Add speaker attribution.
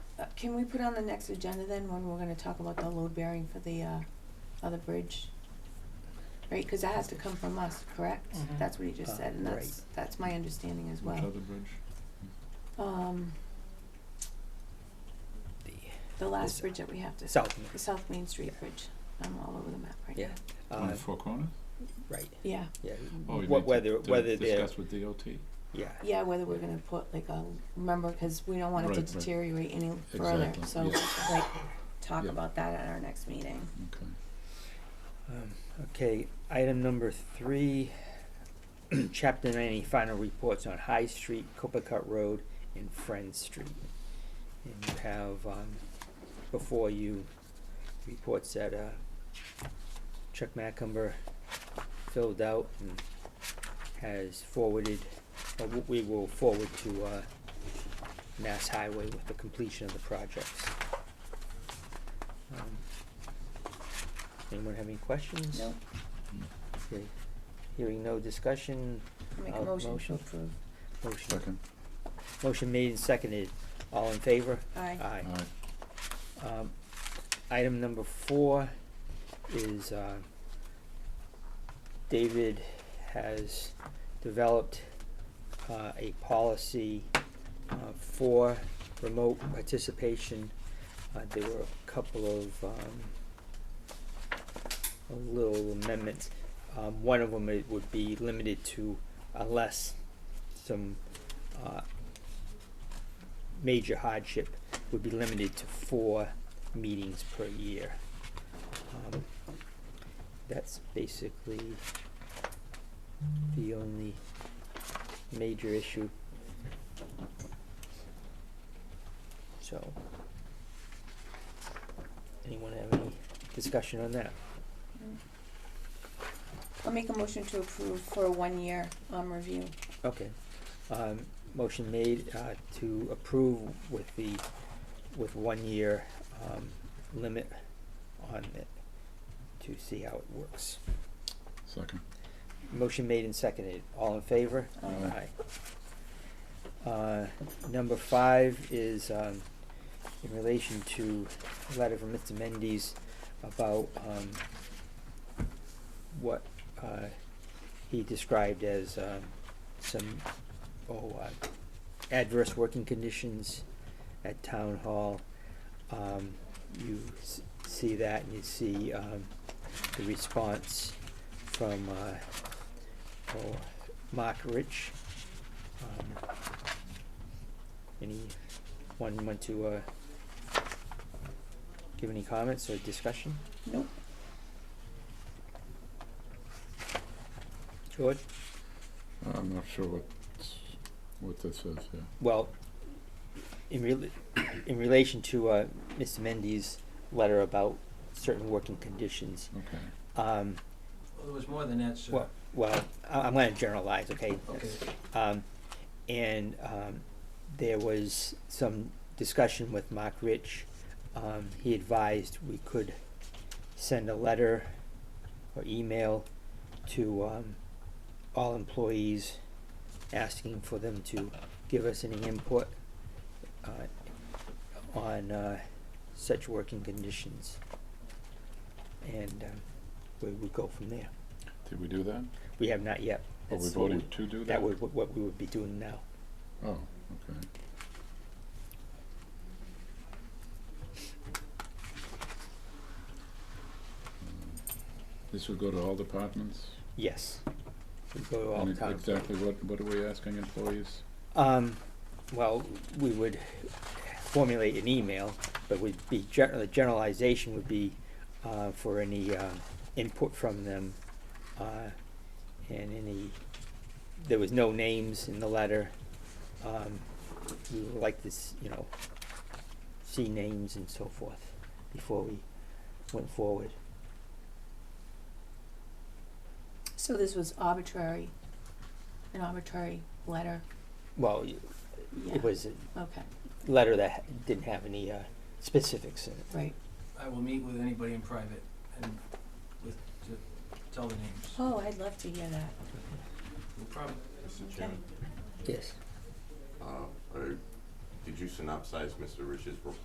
Speaker 1: Uh, Can we put on the next agenda then, when we're gonna talk about the load bearing for the, uh, other bridge? Right, cause that has to come from us, correct?
Speaker 2: Mhm.
Speaker 1: That's what he just
Speaker 3: Uh,
Speaker 1: said, and that's, that's my understanding as
Speaker 4: Which
Speaker 1: well.
Speaker 4: other bridge?
Speaker 1: Um,
Speaker 3: The
Speaker 1: the last
Speaker 3: This-
Speaker 1: bridge that we have to,
Speaker 3: South,
Speaker 1: the South Main Street Bridge, I'm all over the map right now.
Speaker 3: yeah,
Speaker 4: On
Speaker 3: uh,
Speaker 4: Four Corners?
Speaker 3: right,
Speaker 1: Yeah,
Speaker 3: yeah.
Speaker 4: Oh, you
Speaker 3: Wh-
Speaker 4: mean to-
Speaker 3: whether-
Speaker 4: to
Speaker 3: whether they're-
Speaker 4: Discuss with DOT?
Speaker 3: Yeah,
Speaker 1: yeah, whether we're gonna put like a, remember, cause we don't want it
Speaker 4: Right,
Speaker 1: to
Speaker 4: right.
Speaker 1: deteriorate any further,
Speaker 4: Exactly,
Speaker 1: so,
Speaker 4: yeah.
Speaker 1: we should, like, talk
Speaker 4: Yeah.
Speaker 1: about that at our next meeting.
Speaker 4: Okay.
Speaker 3: Um, Okay, item number three, chapter ninety, final reports on High Street, Copacabana Road, and Friend Street. And you have, um, before you, reports that, uh, Chuck Macumber filled out and has forwarded, uh, w- we will forward to, uh, Mass Highway with the completion of the projects. Um, Anyone have any questions?
Speaker 1: Nope.
Speaker 3: Okay, hearing no discussion,
Speaker 1: Make a
Speaker 3: Uh,
Speaker 1: motion to
Speaker 3: motion.
Speaker 1: approve.
Speaker 3: motion,
Speaker 4: Second.
Speaker 3: motion made and seconded, all in favor?
Speaker 1: Aye.
Speaker 3: Aye.
Speaker 4: All right.
Speaker 3: Um, item number four is, uh, David has developed, uh, a policy, uh, for remote participation. Uh, there were a couple of, um, little amendments. Um, one of them it would be limited to unless some, uh, major hardship would be limited to four meetings per year. Um, That's basically the only major issue. So, anyone have any discussion on that?
Speaker 1: I'll make a motion to approve for a one-year, um, review.
Speaker 3: Okay, um, motion made, uh, to approve with the, with one year, um, limit on it to see how it works.
Speaker 4: Second.
Speaker 3: Motion made and seconded, all in favor?
Speaker 4: Aye.
Speaker 3: Aye. Uh, number five is, um, in relation to a letter from Mr. Mendes about, um, what, uh, he described as, um, some, oh, uh, adverse working conditions at town hall. Um, you s- see that and you see, um, the response from, uh, oh, Mark Rich. Um, Any, one want to, uh, give any comments or discussion?
Speaker 1: Nope.
Speaker 3: George?
Speaker 4: I'm not sure what, what this is, yeah.
Speaker 3: Well, in real, in relation to, uh, Mr. Mendy's letter about certain working conditions,
Speaker 4: Okay.
Speaker 3: um,
Speaker 2: Well, there was more than that, sir.
Speaker 3: well, well, I, I'm gonna generalize, okay?
Speaker 2: Okay.
Speaker 3: Um, and, um, there was some discussion with Mark Rich. Um, he advised we could send a letter or email to, um, all employees asking for them to give us any input, uh, on, uh, such working conditions. And, um, we would go from there.
Speaker 4: Did we do that?
Speaker 3: We have not yet.
Speaker 4: Are we
Speaker 3: That's what we-
Speaker 4: voting to do that?
Speaker 3: That would, what- what we would be doing now.
Speaker 4: Oh, okay. This would go to all departments?
Speaker 3: Yes. We go to all
Speaker 4: And uh,
Speaker 3: towns.
Speaker 4: Exactly, what, what are we asking employees?
Speaker 3: Um, well, we would formulate an email, but would be, gen- the generalization would be, uh, for any, uh, input from them, uh, and any, there was no names in the letter. Um, we would like this, you know, see names and so forth before we went forward.
Speaker 1: So this was arbitrary, an arbitrary letter?
Speaker 3: Well, y-
Speaker 1: Yeah,
Speaker 3: it was a
Speaker 1: okay,
Speaker 3: letter that ha- didn't have any, uh, specifics in it.
Speaker 1: right.
Speaker 2: I will meet with anybody in private and with, to tell the names.
Speaker 1: Oh, I'd love to hear that.
Speaker 2: We'll probably,
Speaker 5: Mr.
Speaker 1: Okay.
Speaker 5: Chairman,
Speaker 3: Yes.
Speaker 5: uh, are- did you synopsize Mr. Rich's report?